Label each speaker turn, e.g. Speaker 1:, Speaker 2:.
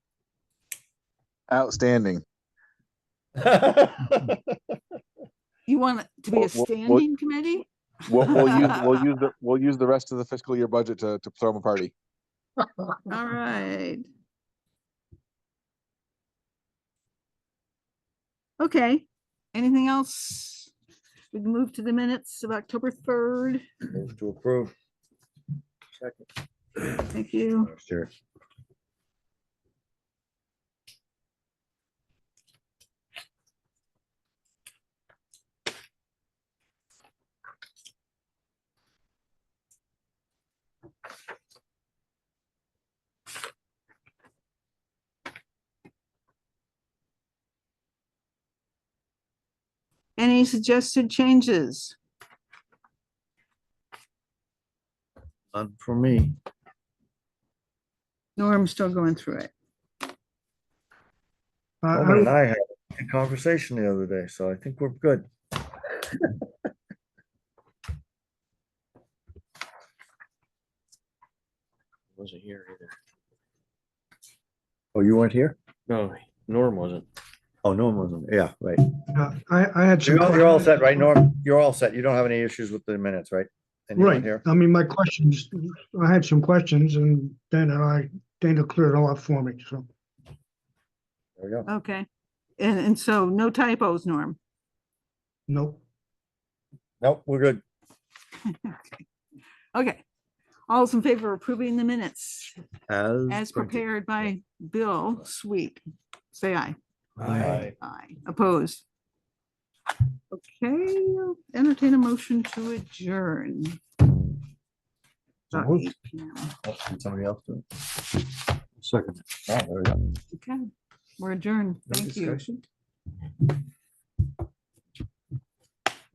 Speaker 1: Outstanding.
Speaker 2: You want it to be
Speaker 1: Well,
Speaker 2: a
Speaker 1: well, well-
Speaker 2: standing committee?
Speaker 1: We'll, we'll use, we'll use, the we'll use the rest of the fiscal year budget to, to throw them a party.
Speaker 2: All right. Okay, anything else? We can move to the minutes of October third.
Speaker 3: Move to approve. Second.
Speaker 2: Thank you.
Speaker 3: Sure.
Speaker 2: Any suggested changes?
Speaker 3: None for me.
Speaker 2: No, I'm still going through it. Uh,
Speaker 3: Norman and I had a conversation the other day, so I think we're good.
Speaker 4: Wasn't here either.
Speaker 3: Oh, you weren't here?
Speaker 4: No, Norm wasn't.
Speaker 3: Oh, Norm wasn't. Yeah, right.
Speaker 5: Yeah, I, I had. some
Speaker 3: You're all, you're all set,
Speaker 5: questions.
Speaker 3: right, Norm? You're all set. You don't have any issues with the minutes, right? And you weren't
Speaker 5: Right,
Speaker 3: here?
Speaker 5: I mean, my questions, I had some questions and Dana, I, Dana cleared it all up for me, so.
Speaker 3: There we go.
Speaker 2: Okay, and, and so no typos, Norm.
Speaker 5: Nope,
Speaker 3: Nope, we're good.
Speaker 2: Okay, all's in favor of approving the minutes as prepared by Bill Sweet. Say aye.
Speaker 3: Aye.
Speaker 2: Aye. Opposed? Okay, I'll entertain a motion to adjourn.
Speaker 3: So
Speaker 2: About
Speaker 3: moved.
Speaker 2: 8 p.m.
Speaker 3: Oh, can Somebody else do it? Second. Oh, there we go.
Speaker 2: Okay, we're adjourned.
Speaker 3: No
Speaker 2: Thank you.
Speaker 3: discussion?